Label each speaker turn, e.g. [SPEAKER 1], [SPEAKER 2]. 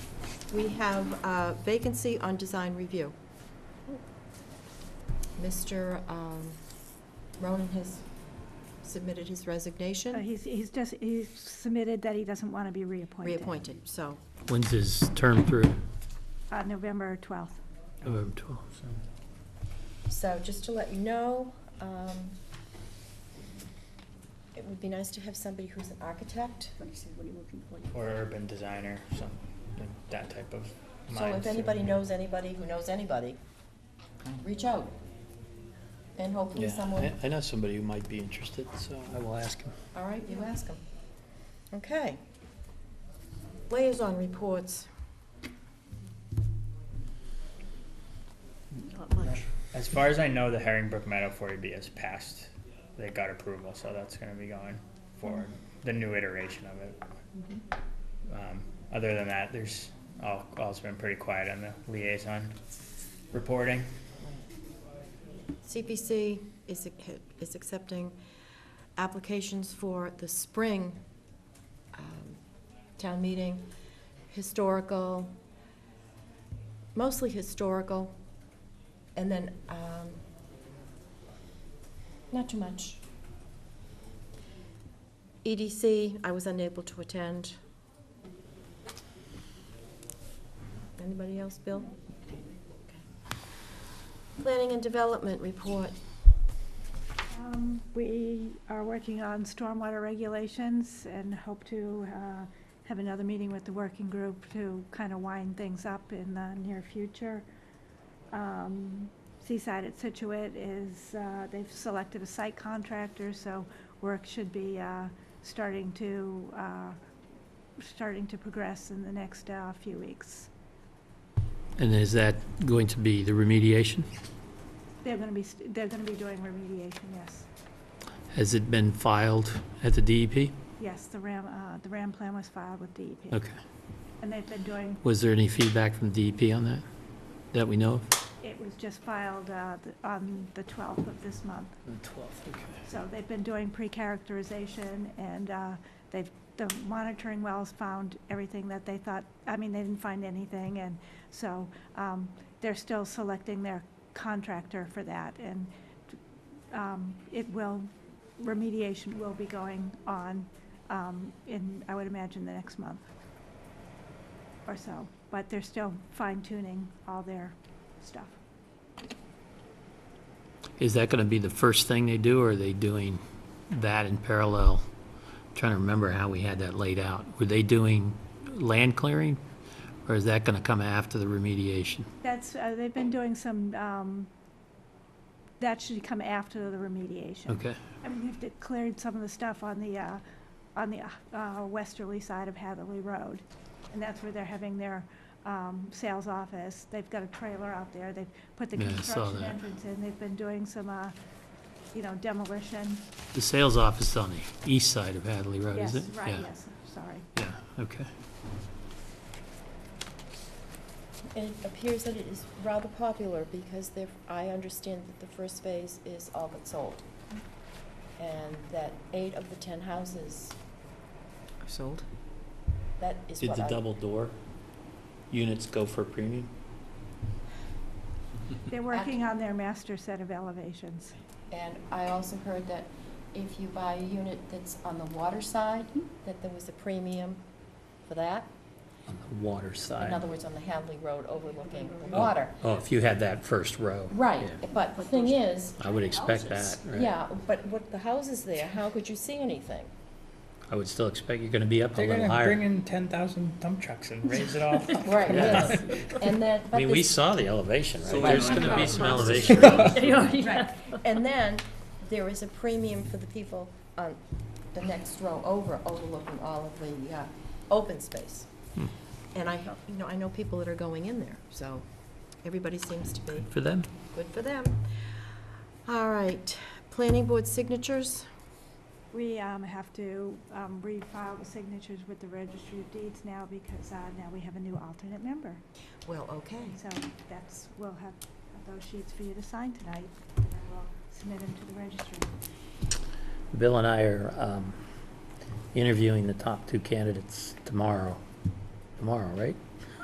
[SPEAKER 1] We have a vacancy on design review. Mr. um, Ronan has submitted his
[SPEAKER 2] Uh,
[SPEAKER 1] resignation,
[SPEAKER 2] He's, he's just, he's submitted that he doesn't want to be reappointed.
[SPEAKER 1] reappointed, so.
[SPEAKER 3] When's his term through?
[SPEAKER 2] Uh, November 12th.
[SPEAKER 3] November 12th.
[SPEAKER 1] So just to let you know, um, it would be nice to have somebody who's an architect.
[SPEAKER 4] Or urban designer, something, that type of
[SPEAKER 1] So
[SPEAKER 4] mindset.
[SPEAKER 1] if anybody knows anybody who knows anybody, reach out. And hopefully
[SPEAKER 3] Yeah,
[SPEAKER 1] someone,
[SPEAKER 3] I- I know somebody who might be interested, so I will ask him.
[SPEAKER 1] all right, you ask them. Okay. Liaison reports.
[SPEAKER 5] Not much.
[SPEAKER 4] As far as I know, the Herringbrook Meadow 40B has passed. They got approval, so that's going to be going forward. The new iteration of it. Um, other than that, there's all, all's been pretty quiet on the liaison reporting.
[SPEAKER 1] CPC is, ac- is accepting applications for the spring um, town meeting, historical, mostly historical, and then, um, not too much. EDC, I was unable to attend. Anybody else, Bill? Planning and Development Report.
[SPEAKER 2] Um, We are working on stormwater regulations and hope to uh, have another meeting with the working group to kind of wind things up in the near future. Um, Seaside at Situate is, uh, they've selected a site contractor, so work should be uh, starting to, uh, starting to progress in the next uh, few weeks.
[SPEAKER 3] And is that going to be the remediation?
[SPEAKER 2] They're going to be, st- they're going to be doing remediation, yes.
[SPEAKER 3] Has it been filed at the E DEP?
[SPEAKER 2] Yes, the RAM, uh, the RAM plan was filed with DEP.
[SPEAKER 3] Okay.
[SPEAKER 2] And they've been doing,
[SPEAKER 3] Was there any feedback from DEP on that, that we know of?
[SPEAKER 2] it was just filed uh, th- on the 12th of this month.
[SPEAKER 3] The 12th, okay.
[SPEAKER 2] So they've been doing pre-characterization, and uh, they've, the monitoring wells found everything that they thought, I mean, they didn't find anything, and so um, they're still selecting their contractor for that, and um, it will, remediation will be going on um, in, I would imagine, the next month or so, but they're still fine-tuning all their stuff.
[SPEAKER 3] Is that going to be the first thing they do, or are they doing that in parallel? I'm Trying to remember how we had that laid out. Were they doing land clearing, or is that going to come after the remediation?
[SPEAKER 2] That's, uh, they've been doing some, um, that should come after the remediation.
[SPEAKER 3] Okay,
[SPEAKER 2] I mean, they've de- cleared some of the stuff on the, uh, on the, uh, westerly side of Hatherley Road. And that's where they're having their, um, sales office. They've got a trailer out there. They've put the
[SPEAKER 3] Yeah, I saw
[SPEAKER 2] construction
[SPEAKER 3] that.
[SPEAKER 2] entrance in. They've been doing some, uh, you know, demolition.
[SPEAKER 3] the sales office is on the east side of Hadley Road, is it?
[SPEAKER 2] Yes, right,
[SPEAKER 3] Yeah,
[SPEAKER 2] yes, sorry.
[SPEAKER 3] Yeah, okay.
[SPEAKER 1] It appears that it is rather popular because there, I understand that the first phase is all but sold. And that eight of the ten houses,
[SPEAKER 5] Sold?
[SPEAKER 1] that is what I.
[SPEAKER 3] door units go for premium?
[SPEAKER 2] They're working on their master set of elevations.
[SPEAKER 1] And I also heard that if you buy a unit that's on the water side, that there was a premium for that.
[SPEAKER 3] On the water side.
[SPEAKER 1] In other words, on the Hadley Road overlooking the
[SPEAKER 3] Oh,
[SPEAKER 1] water.
[SPEAKER 3] Oh, if you had that first row.
[SPEAKER 1] Right,
[SPEAKER 3] yeah.
[SPEAKER 1] but the thing is,
[SPEAKER 3] I would expect that, right?
[SPEAKER 1] yeah, but what, the houses there, how could you see anything?
[SPEAKER 3] I would still expect you're gonna be up a
[SPEAKER 4] They're going
[SPEAKER 3] little
[SPEAKER 4] to bring
[SPEAKER 3] higher.
[SPEAKER 4] in 10,000 dump trucks and raise it all up.
[SPEAKER 1] Right,
[SPEAKER 3] Yeah.
[SPEAKER 1] yes, and then,
[SPEAKER 3] I
[SPEAKER 1] but
[SPEAKER 3] mean, we
[SPEAKER 1] this
[SPEAKER 3] saw the elevation, right?
[SPEAKER 6] So
[SPEAKER 3] There's
[SPEAKER 6] why not
[SPEAKER 3] gonna be
[SPEAKER 6] about
[SPEAKER 3] some
[SPEAKER 6] houses?
[SPEAKER 3] elevation.
[SPEAKER 1] Right, and then there is a premium for the people on the next row over, overlooking all of the uh, open space.
[SPEAKER 3] Hmm.
[SPEAKER 1] And I, help- you know, I know people that are going in there, so everybody seems to be,
[SPEAKER 3] For them?
[SPEAKER 1] good for them. All right, planning board signatures,
[SPEAKER 2] We um, have to um, refile the signatures with the registry of deeds now because uh, now we have a new alternate member.
[SPEAKER 1] well, okay.
[SPEAKER 2] So that's, we'll have have those sheets for you to sign tonight. and then We'll Submit them to the registry.
[SPEAKER 3] Bill and I are, um, interviewing the top two candidates tomorrow. Tomorrow, right?